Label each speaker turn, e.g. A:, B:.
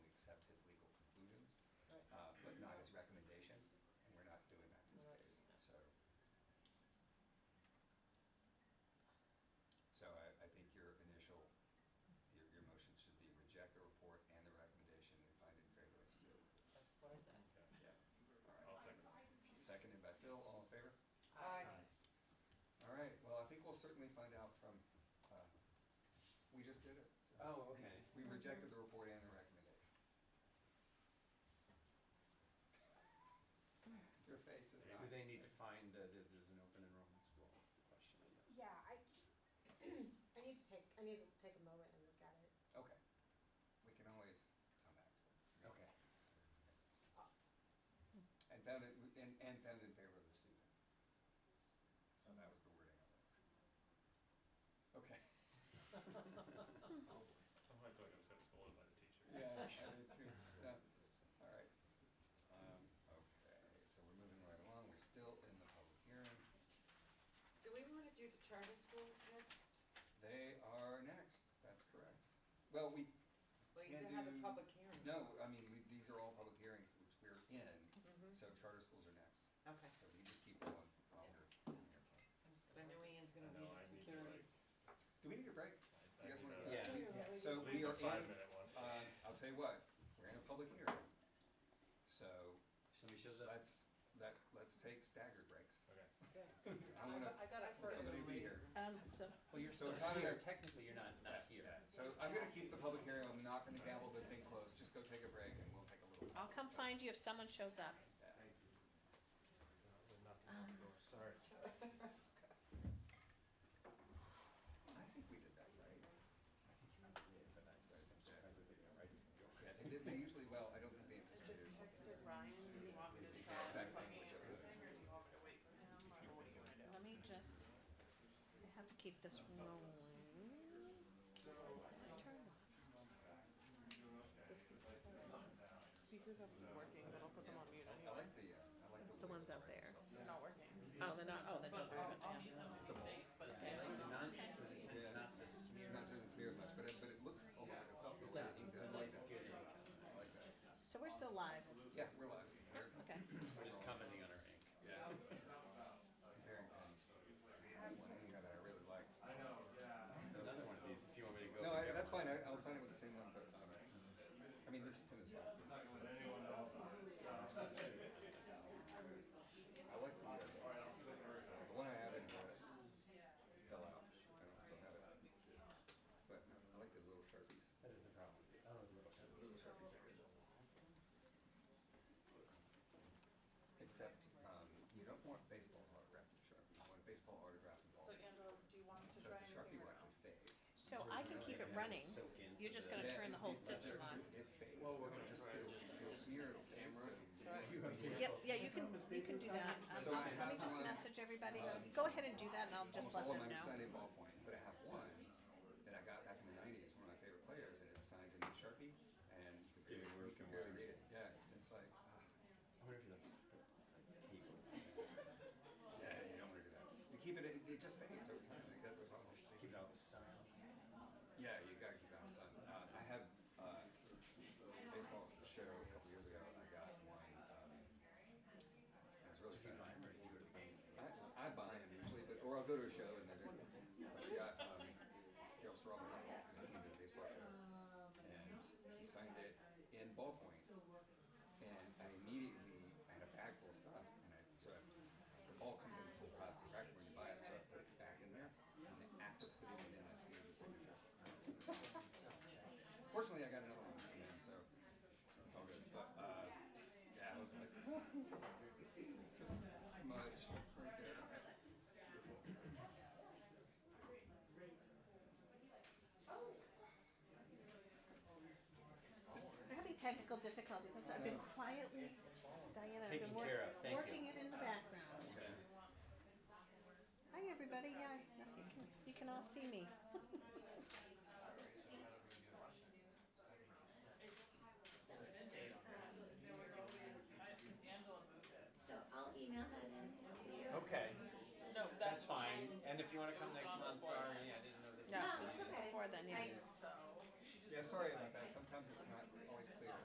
A: uh, board's recommendation, and we're not doing that in this case, so. So I, I think your initial, your, your motion should be reject the report and the recommendation and find in favor as due.
B: That's what I said.
A: Yeah. All
C: I'll
A: right.
C: second.
A: Seconded by Phil, all in favor?
B: Aye.
A: All right, well, I think we'll certainly find out from, uh, we just did it. so.
D: Oh, okay.
A: We rejected the report and the recommendation. Your face is not.
D: Do they need to find that there- there's an open enrollment school is the question, I guess.
E: Yeah, I, I need to take, I need to take a moment and look at it.
A: Okay. We can always come back to it.
D: Okay.
A: And found it, and, and found in favor of the student. So that was the wording of it. Okay.
C: Somehow I feel like I was getting scolded by the teacher.
A: Yeah, I did too. Yeah. All right. Um, okay, so we're moving right along. We're still in the public hearing.
B: Do we want to do the charter school next?
A: They are next. That's correct. Well, we
B: Well, you
A: can
B: can have a
A: do-
B: public hearing.
A: No, I mean, we, these are all public hearings which we're in,
B: Mhm.
A: so charter schools are next.
B: Okay.
A: So we just keep going while we're in here.
B: I know Ian's
C: I
B: gonna
C: know, I
B: be
C: need to like.
B: security.
A: Do we need a break?
C: I- I
A: You guys
C: need
A: wanna do that?
C: a-
D: Yeah.
E: Yeah.
A: So
C: At least
A: we are
C: a
A: in.
C: five-minute one.
A: uh, I'll tell you what, we're in a public hearing. So
D: Somebody shows up.
A: let's, let, let's take staggered breaks.
C: Okay.
A: I wanna,
B: got it
A: want somebody to be here.
F: Um, so,
D: Well, you're
A: So
D: still
A: it's not here.
D: here, technically you're not, not here.
A: Yeah, So I'm gonna keep the public hearing, I'm not gonna gavel the thing closed, just go take a break and we'll take a little.
F: I'll come find you if someone shows up.
A: Yeah.
D: Sorry.
A: I think we did that right. I think you did, but I'm surprised that they got right. Yeah, they did, they usually, well, I don't think they anticipated.
G: Ryan, do you want me to try
A: Exact
G: and copy
A: language of it.
G: everything, or do you want me to wait for him, or what do you want to do?
F: Let me just, I have to keep this rolling. My turn off.
G: Speakers are working, then I'll put them on mute
A: I
G: anyway.
A: like the, uh, I like the.
F: The ones out there.
G: They're not working.
F: Oh, they're not, oh, they're not.
G: mute them when you say, but.
D: Yeah, I like the non, because it tends
A: Yeah.
D: not to smear.
A: Not doesn't smear as much, but it, but it looks almost like a felt. the way
D: Yeah,
A: it
D: it's
A: is.
D: a
A: I like
D: nice
A: that.
D: good ink.
A: I like that.
F: So we're still live.
A: Yeah, we're live. We're-
F: Okay.
D: We're just commenting on our ink.
A: Yeah. Comparing pens. I had one in here that I really liked.
D: Another one of these, if you want me to go.
A: No,
D: and
A: I,
D: get
A: that's
D: one.
A: fine, I, I'll sign it with the same one, but, um, I mean, this pen is fine. I like the, uh, the one I have in here uh, fell out, I don't still have it. But no, I like those little sharpies,
D: That is the problem. Oh, the little
A: those little sharpies are good. Except, um, you don't want baseball autographed sharpie, you want a baseball autographed ball.
G: So Andrew, do you want us to try
A: Because the
G: and
A: sharpie
G: figure
A: will
G: it out?
A: actually fade.
F: So I can keep it running. You're just gonna
A: Yeah,
F: turn the
A: it-
F: whole
A: it- it's just-
F: system on.
A: It fades.
D: Well, we're
A: It'll
D: gonna
A: just,
D: try and
A: it'll,
D: just-
A: it'll smear, it'll fade, so.
F: Yep, yeah, you can, you can do that. Um, I'll- Let me just message everybody. Go ahead and do that and I'll just
A: Almost
F: let
A: all of
F: them
A: mine are signed
F: know.
A: in ballpoint, but I have one that I got back in the nineties, one of my favorite players, and it's signed in Sharpie, and you can barely,
D: getting
A: you
D: worse
A: can
D: and
A: barely
D: worse.
A: read it, yeah, it's like, ah,
D: I wonder if he likes people.
A: yeah, you don't wanna do that. You keep it, it, it just fades over time, like, that's the problem.
D: Keep it out of the sun.
A: Yeah, you gotta keep it outside. Uh, I have uh, baseball show a couple years ago. I got one. Um, it was really
D: If you buy
A: fun.
D: them or you go to the game.
A: I, I buy them usually, but or I'll go to a show and then they're. But I got um, Daryl Strawman because I came to the baseball show, and he signed it in ballpoint. And I immediately I had a bag full of stuff, and I so I, the ball comes in this little plastic wrapper when you buy it, so I put it back in there, and the act of putting it in, I scanned the signature. Fortunately, I got another one from him, so it's all good. But uh, yeah, I was like, just smudge right there.
F: We're having technical difficulties. I'm sorry. I've been quietly, Diana, I've been
D: Taken care of,
F: working,
D: thank you.
F: working it in the background. Hi, everybody. Yeah, you can, you can all see me.
H: So I'll email that in and see you.
D: Okay,
G: No, that's
D: that's fine. And if you want to come
G: It was
D: next
G: gone
D: month,
G: before.
D: sorry, I didn't know that.
F: No,
H: it's okay.
F: before then, yeah.
H: I-
G: so.
A: Yeah, sorry about that. Sometimes it's not